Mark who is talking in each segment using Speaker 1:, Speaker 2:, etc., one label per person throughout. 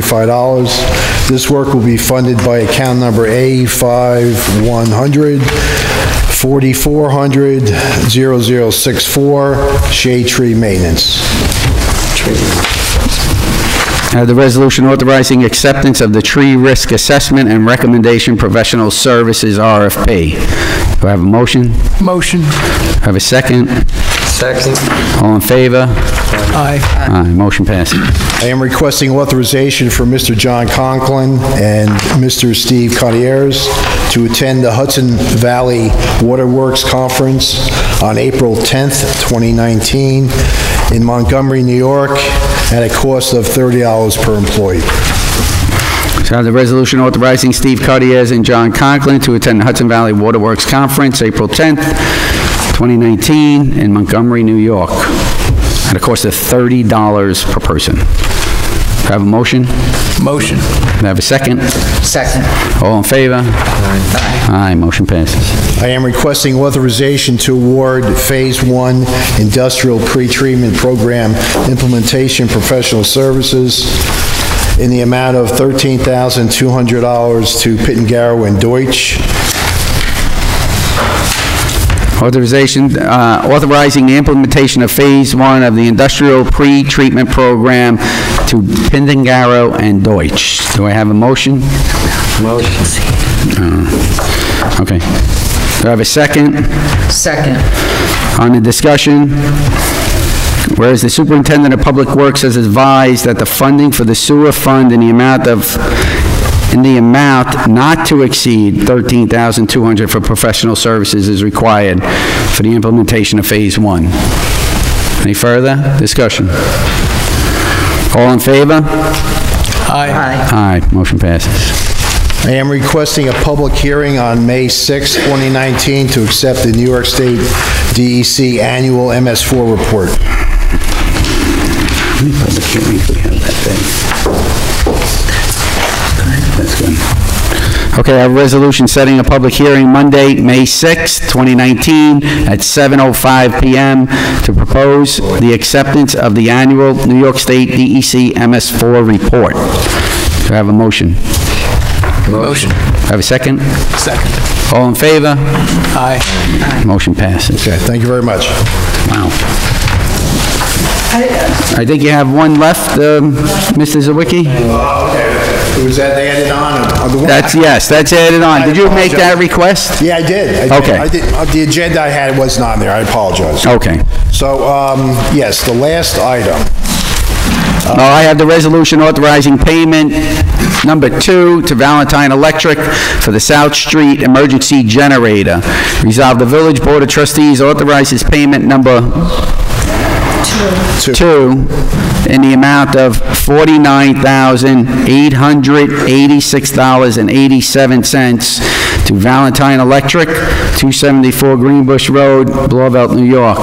Speaker 1: $3,565. This work will be funded by account number A5100, 4400 64 Shade Tree Maintenance.
Speaker 2: Uh, The resolution authorizing acceptance of the tree risk assessment and recommendation professional services RFP. Do I have a motion? Do
Speaker 3: Motion.
Speaker 2: I have a second?
Speaker 3: Second.
Speaker 2: All in favor?
Speaker 3: Aye.
Speaker 2: Aye, motion passes.
Speaker 1: I am requesting authorization for Mr. John Conklin and Mr. Steve Cotieres to attend the Hudson Valley Waterworks Conference on April 10th, 2019, in Montgomery, New York, at a cost of $30 per employee.
Speaker 2: So I have the resolution authorizing Steve Cuddyers and John Conklin to attend the Hudson Valley Waterworks Conference, April 10th, 2019, in Montgomery, New York, at a cost of $30 per person. Do I have a motion? Do
Speaker 3: Motion.
Speaker 2: I have a second?
Speaker 3: Second.
Speaker 2: All in favor? Aye. Aye, motion passes.
Speaker 1: I am requesting authorization to award Phase 1 Industrial Pretreatment Program Implementation Professional Services in the amount of $13,200 to Pittengarrow and Deutsch.
Speaker 2: Authorization, uh, authorizing the implementation of Phase 1 of the industrial pre-treatment program to Pindengaro and Deutsch. Do I have a motion?
Speaker 3: Motion.
Speaker 2: Uh, Okay. Do I have a second?
Speaker 3: Second.
Speaker 2: On the discussion, whereas the superintendent of public works has advised that the funding for the sewer fund in the amount of, in the amount not to exceed $13,200 for professional services is required for the implementation of Phase 1. Any further discussion? All in favor?
Speaker 3: Aye.
Speaker 2: Aye, motion passes.
Speaker 1: I am requesting a public hearing on May 6, 2019, to accept the New York State DEC Annual MS4 Report.
Speaker 2: Public hearing, we have that thing. That's good. Okay, I have a resolution setting a public hearing Monday, May 6th, 2019, at 7:05 PM to propose the acceptance of the annual New York State E DEC MS4 report. Do I have a motion? Do
Speaker 3: Motion.
Speaker 2: I have a second?
Speaker 3: Second.
Speaker 2: All in favor?
Speaker 3: Aye.
Speaker 2: Motion passes.
Speaker 1: Okay, thank you very much.
Speaker 2: Wow. I think you have one left, um, Mr. Zawicki?
Speaker 1: Was that added on?
Speaker 2: That's, yes, that's added on. Did you make that request?
Speaker 1: Yeah, I did. I did.
Speaker 2: Okay.
Speaker 1: I did, uh, the agenda I had wasn't on there, I apologize.
Speaker 2: Okay.
Speaker 1: So, um, yes, the last item,
Speaker 2: Uh, I have the resolution authorizing payment number two to Valentine Electric for the South Street Emergency Generator. Resolve the Village Board of Trustees authorizes payment number two in the amount of $49,886.87 to Valentine Electric, 274 Greenbush Road, Blauvelt, New York.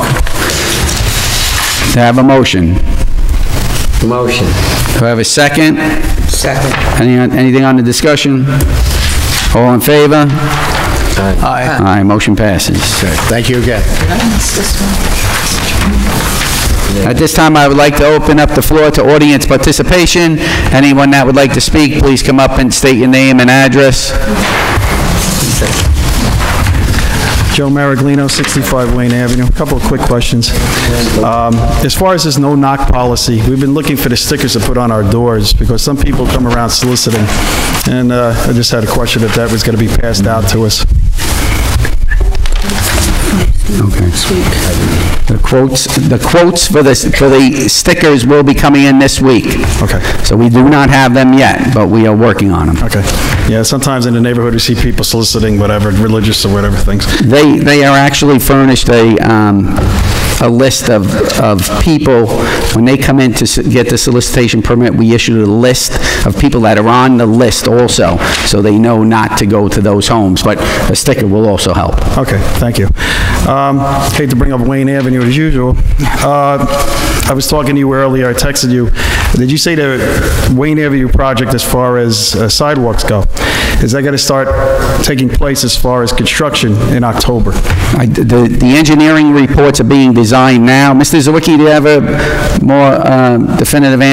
Speaker 2: To have a motion.
Speaker 3: Motion.
Speaker 2: Do I have a second?
Speaker 3: Second.
Speaker 2: Any, anything on the discussion? All in favor?
Speaker 3: Aye.
Speaker 2: Aye, motion passes.
Speaker 1: thank you again.
Speaker 2: At this time, I would like to open up the floor to audience participation. Anyone that would like to speak, please come up and state your name and address.
Speaker 4: Joe Maraglino, 65 Wayne Avenue. A Couple of quick questions. Um, As far as this no-knock policy, we've been looking for the stickers to put on our doors, because some people come around soliciting, and uh, I just had a question if that was going to be passed out to us.
Speaker 2: The quotes, the quotes for the, for the stickers will be coming in this week.
Speaker 4: Okay.
Speaker 2: So we do not have them yet, but we are working on them.
Speaker 4: Okay. Yeah, sometimes in the neighborhood, we see people soliciting whatever, religious or whatever things.
Speaker 2: They, they are actually furnished a, um, a list of, of people, when they come in to s- get the solicitation permit, we issue a list of people that are on the list also, so they know not to go to those homes, but a sticker will also help.
Speaker 4: Okay, thank you. Um, Hate to bring up Wayne Avenue as usual. Uh, I was talking to you earlier, I texted you. Did you say the Wayne Avenue project as far as uh, sidewalks go? Is that going to start taking place as far as construction in October?
Speaker 2: I- The, the engineering reports are being designed now. Mr. Zawicki, do you have a more uh, definitive answer